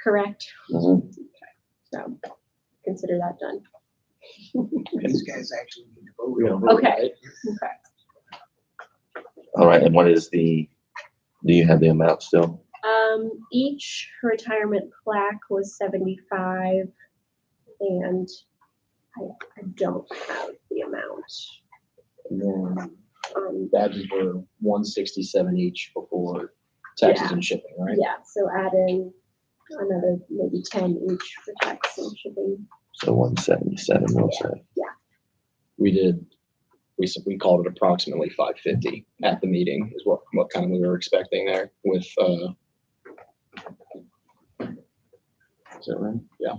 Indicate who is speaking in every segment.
Speaker 1: correct?
Speaker 2: Mhm.
Speaker 1: So consider that done.
Speaker 3: These guys actually need to vote.
Speaker 1: Okay. Okay.
Speaker 2: All right, and what is the, do you have the amount still?
Speaker 1: Um, each retirement plaque was seventy-five, and I, I don't have the amount. Um,
Speaker 4: Badges were one sixty-seven each before taxes and shipping, right?
Speaker 1: yeah, so add in another maybe ten each for tax and shipping.
Speaker 2: So one seventy-seven, we'll say.
Speaker 4: We did, we, s- we called it approximately five fifty at the meeting is what, what kind of we were expecting there with, uh, is that right? Yeah.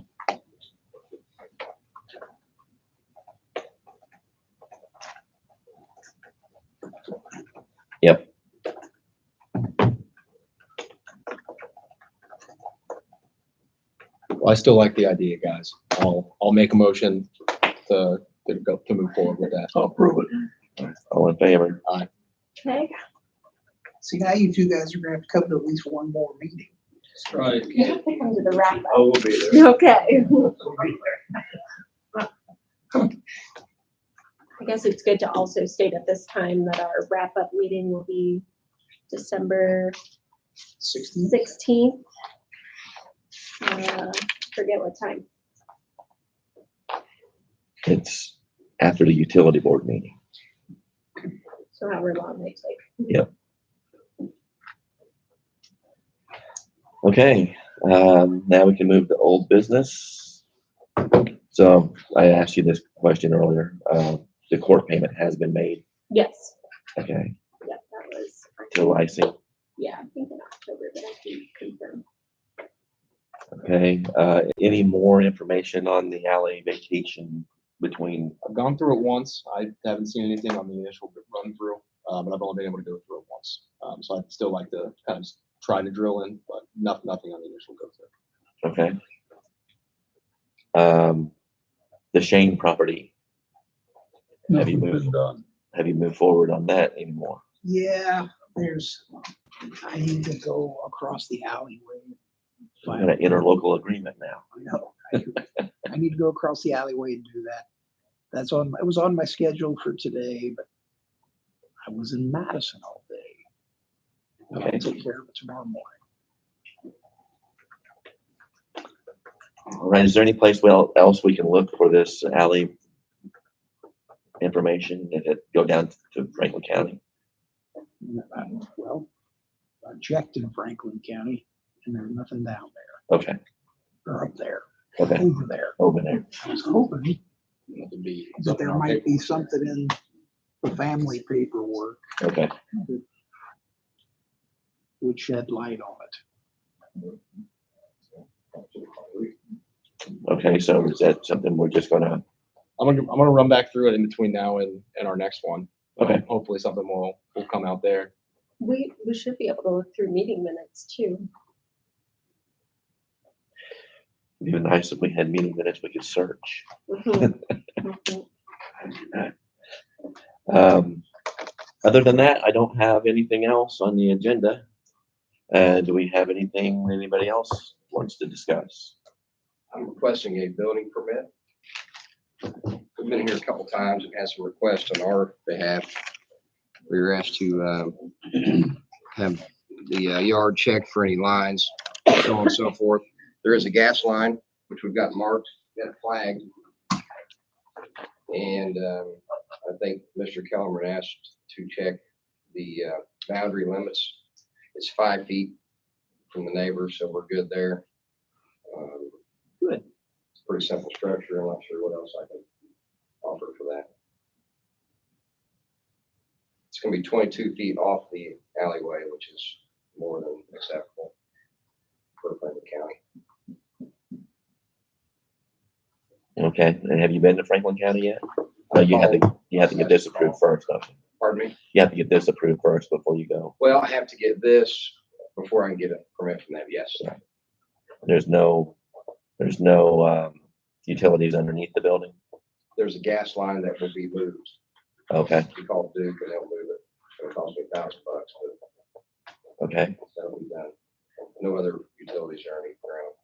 Speaker 4: Well, I still like the idea, guys. I'll, I'll make a motion to, to go, to move forward with that.
Speaker 3: I'll prove it.
Speaker 2: All in favor?
Speaker 1: Okay,
Speaker 3: See, now you two guys are gonna have to come to at least one more meeting.
Speaker 5: Right.
Speaker 1: you have to come to the wrap
Speaker 5: I will be there.
Speaker 1: up. Okay, I guess it's good to also state at this time that our wrap-up meeting will be December
Speaker 3: Sixteen,
Speaker 1: sixteenth. Uh, forget what time.
Speaker 2: It's after the utility board meeting.
Speaker 1: So however long they take.
Speaker 2: Okay, um, now we can move to old business. So I asked you this question earlier, uh, the court payment has been made,
Speaker 1: Yes.
Speaker 2: okay,
Speaker 1: Yep, that was,
Speaker 2: to Lysing,
Speaker 1: yeah, I think in October, but I can confirm.
Speaker 2: okay? Uh, any more information on the alley vacation between,
Speaker 4: I've gone through it once. I haven't seen anything on the initial run through, uh, but I've only been able to go through it once. Um, so I'd still like to kind of try to drill in, but not, nothing on the initial go through.
Speaker 2: okay? Um, the Shane property, Have you moved?
Speaker 5: Nothing's been done.
Speaker 2: have you moved forward on that anymore?
Speaker 3: yeah, there's, I need to go across the alleyway.
Speaker 2: We got an interlocal agreement now.
Speaker 3: I know. I- I need to go across the alleyway and do that. That's on, it was on my schedule for today, but I was in Madison all day.
Speaker 2: Okay.
Speaker 3: I'll take care of it tomorrow morning.
Speaker 2: All right, is there any place well else we can look for this alley information? Did it go down to Franklin County?
Speaker 3: And I- Well, I checked uh, in Franklin County and there's nothing down
Speaker 2: Okay,
Speaker 3: there or up there,
Speaker 2: okay,
Speaker 3: over there.
Speaker 2: over there.
Speaker 3: I was hoping
Speaker 4: It would be
Speaker 3: that
Speaker 4: something
Speaker 3: there
Speaker 4: I'll
Speaker 3: might
Speaker 4: take-
Speaker 3: be something in the family paperwork
Speaker 2: Okay,
Speaker 3: would shed light on it.
Speaker 2: okay, so is that something we're just gonna,
Speaker 4: I'm gonna, I'm gonna run back through it in between now and, and our next one.
Speaker 2: Okay.
Speaker 4: Hopefully something will, will come out there.
Speaker 1: We, we should be able to look through meeting minutes too.
Speaker 2: it'd be nice if we had meeting minutes we could search.
Speaker 1: Mhm. Mhm.
Speaker 2: Um, other than that, I don't have anything else on the agenda. Uh, do we have anything anybody else wants to discuss?
Speaker 6: I'm requesting a building permit. We've been here a couple times and had some requests on our behalf. We were asked to um, have the uh, yard checked for any lines, so on and so forth. There is a gas line, which we've got marked, got flagged. And um, I think Mr. Kellerman asked to check the uh, boundary limits. It's five feet from the neighbor, so we're good there. Um, pretty simple structure. I'm not sure what else I can offer for that. It's gonna be twenty-two feet off the alleyway, which is more than acceptable for Franklin County.
Speaker 2: Okay, and have you been to Franklin County yet? No, you have to, you have to get this approved first, don't you?
Speaker 6: Pardon me?
Speaker 2: You have to get this approved first before you go.
Speaker 6: Well, I have to get this before I can get a permit from them, yes.
Speaker 2: There's no, there's no, um, utilities underneath the building?
Speaker 6: There's a gas line that will be moved.
Speaker 2: Okay,
Speaker 6: We call Duke and they'll move it. It'll cost me a thousand bucks, but
Speaker 2: okay,
Speaker 6: that'll be done. No other utilities or anything around.